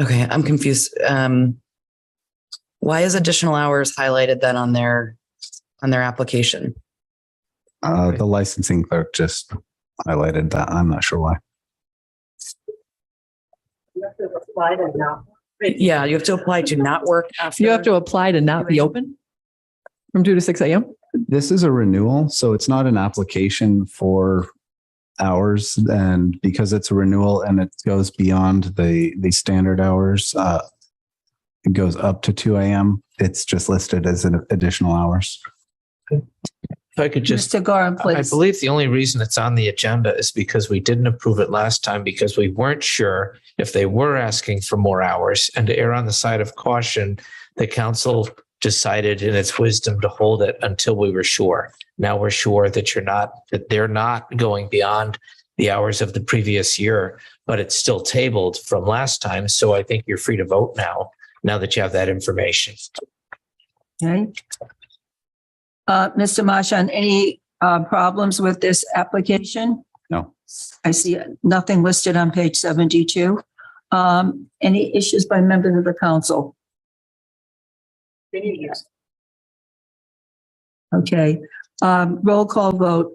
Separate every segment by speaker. Speaker 1: Okay, I'm confused. Um, why is additional hours highlighted then on their, on their application?
Speaker 2: Uh, the licensing clerk just highlighted that. I'm not sure why.
Speaker 1: Yeah, you have to apply to not work after.
Speaker 3: You have to apply to not be open from two to six AM.
Speaker 2: This is a renewal, so it's not an application for hours. And because it's a renewal and it goes beyond the, the standard hours, uh, it goes up to two AM. It's just listed as an additional hours.
Speaker 4: If I could just,
Speaker 5: Mr. Gorin,
Speaker 4: I I
Speaker 5: please.
Speaker 4: believe the only reason it's on the agenda is because we didn't approve it last time because we weren't sure if they were asking for more hours. And to err on the side of caution, the council decided in its wisdom to hold it until we were sure. Now we're sure that you're not, that they're not going beyond the hours of the previous year, but it's still tabled from last time. So I think you're free to vote now, now that you have that information.
Speaker 5: Okay. Uh, Mr. Marshon, any, uh, problems with this application?
Speaker 2: No.
Speaker 5: I see nothing listed on page seventy-two. Um, any issues by members of the council? Okay, um, roll call vote.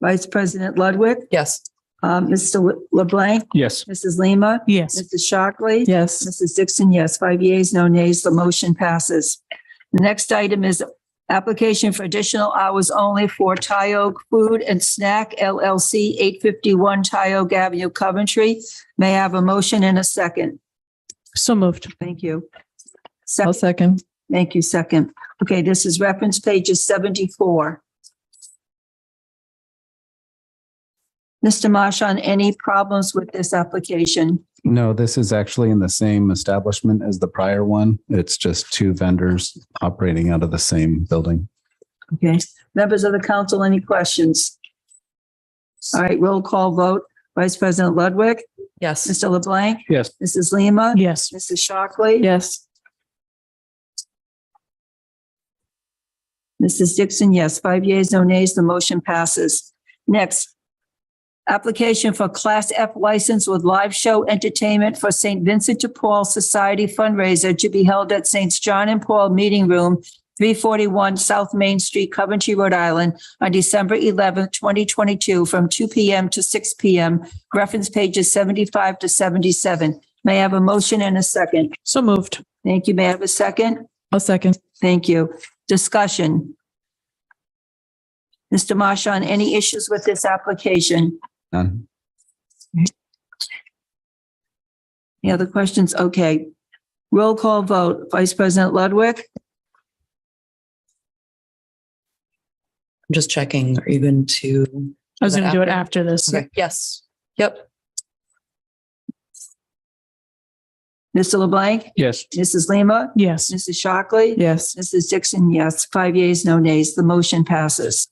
Speaker 5: Vice President Ludwig,
Speaker 1: Yes.
Speaker 5: uh, Mr. LeBlanc,
Speaker 6: Yes.
Speaker 5: Mrs. Lima,
Speaker 3: Yes.
Speaker 5: Mrs. Shockley.
Speaker 3: Yes.
Speaker 5: Mrs. Dixon, yes. Five yeas, no nays. The motion passes. The next item is application for additional hours only for Tyog Food and Snack LLC, 851 Tyog Avenue, Coventry. May I have a motion and a second?
Speaker 3: So moved.
Speaker 5: Thank you.
Speaker 3: I'll
Speaker 5: Second,
Speaker 3: second.
Speaker 5: thank you, second. Okay, this is reference pages 74. Mr. Marshon, any problems with this application?
Speaker 2: No, this is actually in the same establishment as the prior one. It's just two vendors operating out of the same building.
Speaker 5: Okay, members of the council, any questions? All right, roll call vote. Vice President Ludwig,
Speaker 1: Yes.
Speaker 5: Mr. LeBlanc,
Speaker 6: Yes.
Speaker 5: Mrs. Lima,
Speaker 3: Yes.
Speaker 5: Mrs. Shockley,
Speaker 3: Yes.
Speaker 5: Mrs. Dixon, yes. Five yeas, no nays. The motion passes. Next, application for Class F license with live show entertainment for St. Vincent de Paul Society fundraiser to be held at St. John and Paul Meeting Room, 341 South Main Street, Coventry, Rhode Island, on December 11, 2022, from 2 p.m. to 6 p.m. Reference pages 75 to 77. May I have a motion and a second?
Speaker 3: So moved.
Speaker 5: Thank you. May I have a second?
Speaker 3: I'll second.
Speaker 5: Thank you. Discussion. Mr. Marshon, any issues with this application?
Speaker 2: None.
Speaker 5: Any other questions? Okay. Roll call vote. Vice President Ludwig?
Speaker 1: I'm just checking. Are you going to?
Speaker 7: I was
Speaker 1: Is that
Speaker 7: going to do it
Speaker 1: after?
Speaker 7: after this.
Speaker 1: Okay. Yes. Yep.
Speaker 5: Mr. LeBlanc?
Speaker 6: Yes.
Speaker 5: Mrs. Lima?
Speaker 7: Yes.
Speaker 5: Mrs. Shockley?
Speaker 3: Yes.
Speaker 5: Mrs. Dixon, yes. Five yeas, no nays. The motion passes.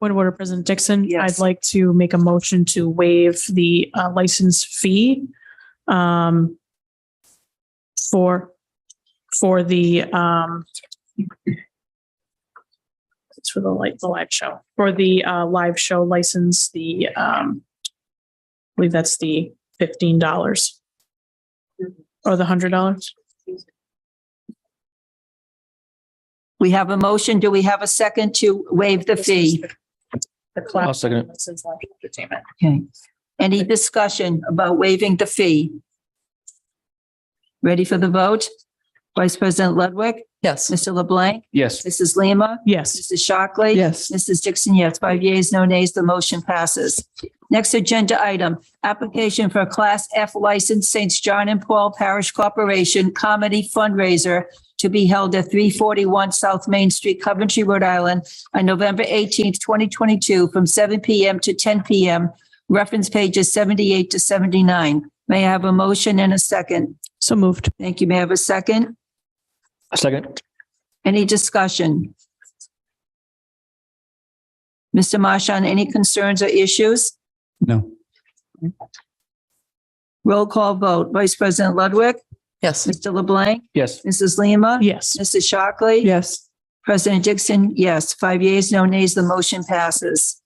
Speaker 7: Point of order, President Dixon.
Speaker 5: Yes.
Speaker 7: I'd like to make a motion to waive the uh, license fee um, for, for the, um, it's for the light, the live show, for the uh, live show license, the, um, I believe that's the $15 or the $100.
Speaker 5: We have a motion. Do we have a second to waive the fee?
Speaker 7: The
Speaker 6: I'll
Speaker 7: class
Speaker 6: second it.
Speaker 7: license live entertainment.
Speaker 5: Okay. Any discussion about waiving the fee? Ready for the vote? Vice President Ludwig?
Speaker 1: Yes.
Speaker 5: Mr. LeBlanc?
Speaker 6: Yes.
Speaker 5: Mrs. Lima?
Speaker 7: Yes.
Speaker 5: Mrs. Shockley?
Speaker 3: Yes.
Speaker 5: Mrs. Dixon, yes. Five yeas, no nays. The motion passes. Next agenda item, application for a Class F license, St. John and Paul Parish Corporation Comedy Fundraiser to be held at 341 South Main Street, Coventry, Rhode Island, on November 18th, 2022, from 7 p.m. to 10 p.m. Reference pages 78 to 79. May I have a motion and a second?
Speaker 7: So moved.
Speaker 5: Thank you. May I have a second?
Speaker 6: Second.
Speaker 5: Any discussion? Mr. Marshon, any concerns or issues?
Speaker 2: No.
Speaker 5: Roll call vote. Vice President Ludwig,
Speaker 1: Yes.
Speaker 5: Mr. LeBlanc,
Speaker 6: Yes.
Speaker 5: Mrs. Lima,
Speaker 7: Yes.
Speaker 5: Mrs. Shockley.
Speaker 3: Yes.
Speaker 5: President Dixon, yes. Five yeas, no nays. The motion passes.